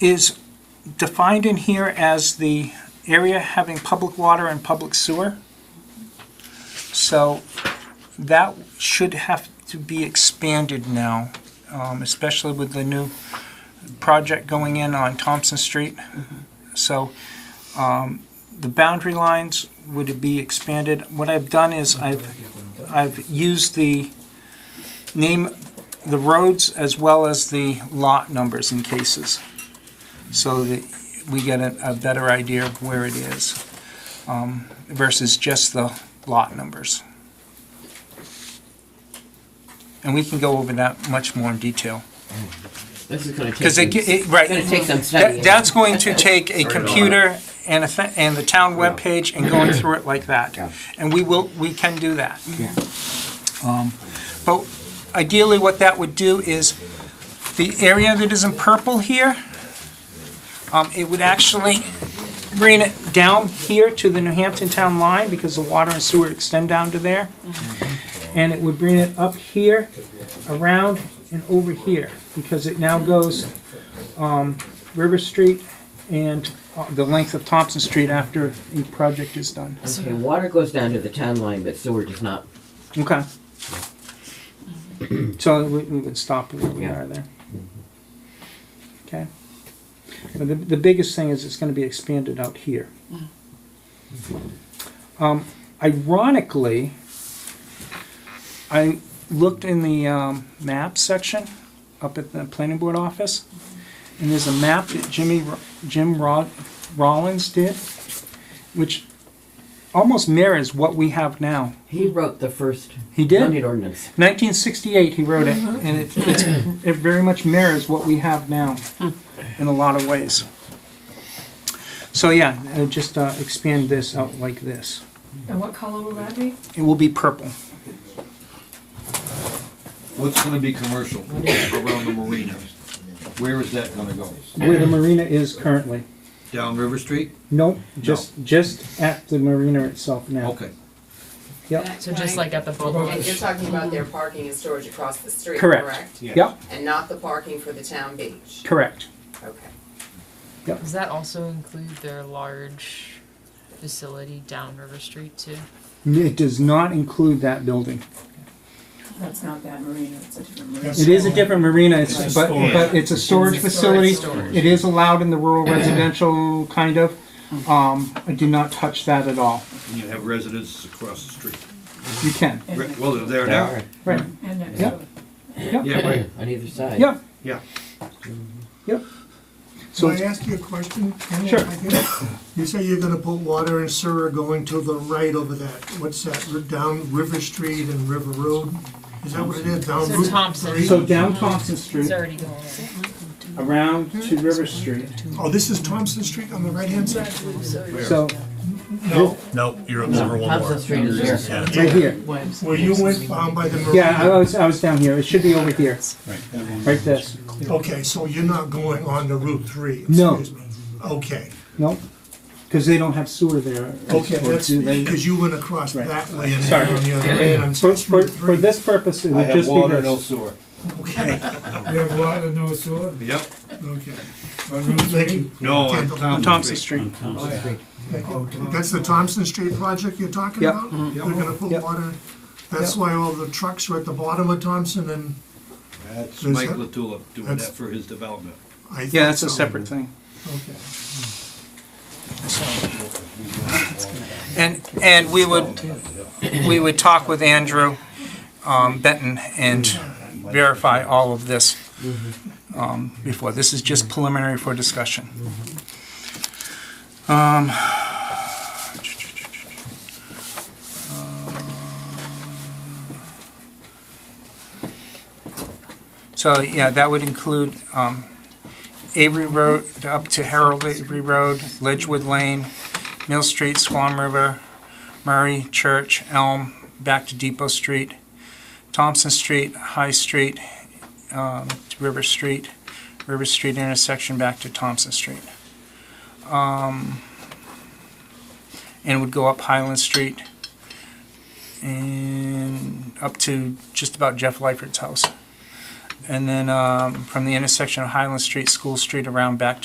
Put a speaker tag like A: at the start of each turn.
A: is defined in here as the area having public water and public sewer. So that should have to be expanded now, um, especially with the new project going in on Thompson Street. So um, the boundary lines would be expanded. What I've done is I've, I've used the name, the roads as well as the lot numbers in cases, so that we get a, a better idea of where it is um, versus just the lot numbers. And we can go over that much more in detail.
B: This is gonna take.
A: Because it, ge-
B: some-
A: it, right.
B: Gonna take some
A: That-
B: studying.
A: That's going to take a
C: Sorry,
A: computer and a, thi- and the town webpage and going through it like that.
D: Yeah.
A: And we will, we can do that.
D: Yeah.
A: Um, But ideally, what that would do is, the area that is in purple here, um, it would actually bring it down here to the New Hampton town line, because the water and sewer extend down to there. And it would bring it up here, around, and over here, because it now goes um, River Street and uh, the length of Thompson Street after the project is done.
B: Okay, water goes down to the town line, but sewer does not.
A: Okay. So we, we would stop where we are there. Okay. But the, the biggest thing is it's gonna be expanded out here. Um, ironically, I looked in the, um, map section up at the planning board office, and there's a map that Jimmy, Ro- Jim Rod, Rollins did, which almost mirrors what we have now.
B: He wrote the first.
A: He did?
B: zoning ordinance.
A: 1968, he wrote it, and it, it's, it very much mirrors what we have now in a lot of ways. So yeah, uh, just uh, expand this out like this.
E: And what color will that be?
A: It will be purple.
C: What's gonna be commercial around the marina? Where is that gonna go?
A: Where the marina is currently.
C: Down River Street?
A: Nope, just just at the marina itself now.
C: Okay.
A: Yep.
E: So just like at the
F: And you're
E: boat.
F: talking about their parking and storage across the street,
A: Correct.
F: correct?
A: Yep.
F: And not the parking for the town beach?
A: Correct.
F: Okay.
E: Does that also include their large facility down River Street too?
A: It does not include that building.
G: That's not that marina, it's a different marina.
A: It is a different marina, it's, but, but it's a storage
E: It's a
A: facility.
E: storage, storage.
A: It is allowed in the rural residential, kind of.
E: Hmm.
A: Um, I do not touch that at all.
C: And you have residences across the street.
A: You can,
C: Re- Well, they're there
B: All
C: now.
B: right,
A: right,
G: And it's
A: Yeah.
G: a-
C: Yeah, right,
B: On either side.
A: yeah.
C: yeah.
A: So,
H: Can I ask you a question? Ken, if
A: Sure.
H: I can? You say you're gonna put water and sewer going to the right over that, what's that, r- down River Street and River Road? Is that what it is, down
E: So
H: Route
E: Thompson.
H: three?
A: so down Thompson
E: It's
A: Street,
E: already going in.
A: around to River Street,
H: Oh, this is Thompson Street on the right-hand side?
A: so,
H: No,
I: No, you're up over one
B: Thompson
I: more.
B: Street is there.
I: Yeah.
A: right here.
H: where you went um, by the marina?
A: Yeah, I was, I was down here, it should be over here. Right this,
H: Okay, so you're not going on to Route three?
A: No.
H: excuse me. Okay,
A: nope, because they don't have sewer there.
H: okay,
A: Or
H: that's,
A: do they?
H: because you went across
A: Right.
H: that way and
A: Sorry.
H: then on the other way, and
A: For,
H: it's
A: for,
H: Route
A: for
H: three.
A: this purpose, it
C: I
A: would
C: have
A: just be
C: water, no
A: this.
C: sewer.
H: Okay,
J: You have water, no sewer?
C: Yep.
H: okay. Thank you.
C: No, on
A: Thompson Street,
H: That's the Thompson Street project you're talking
A: Yep. Mm-hmm.
H: about? They're gonna put
A: Yep.
H: water, that's
A: Yep.
H: why all the trucks are at the bottom of Thompson and
C: That's
H: Is
C: Mike
H: that-
C: Latula doing
H: that's-
C: that for his development.
H: I.
A: yeah, that's a
H: thought so.
A: separate thing.
H: Okay.
A: And, and we would, we would talk with Andrew um, Benton and verify all of this um, before. This is just preliminary for discussion. Um, So, yeah, that would include um, Avery Road, up to Harold Avery Road, Ledgewood Lane, Mill Street, Swan River, Murray, Church, Elm, back to Depot Street, Thompson Street, High Street, um, to River Street, River Street intersection back to Thompson Street. Um, And would go up Highland Street and up to just about Jeff Lightford's house. And then um, from the intersection of Highland Street, School Street, around back to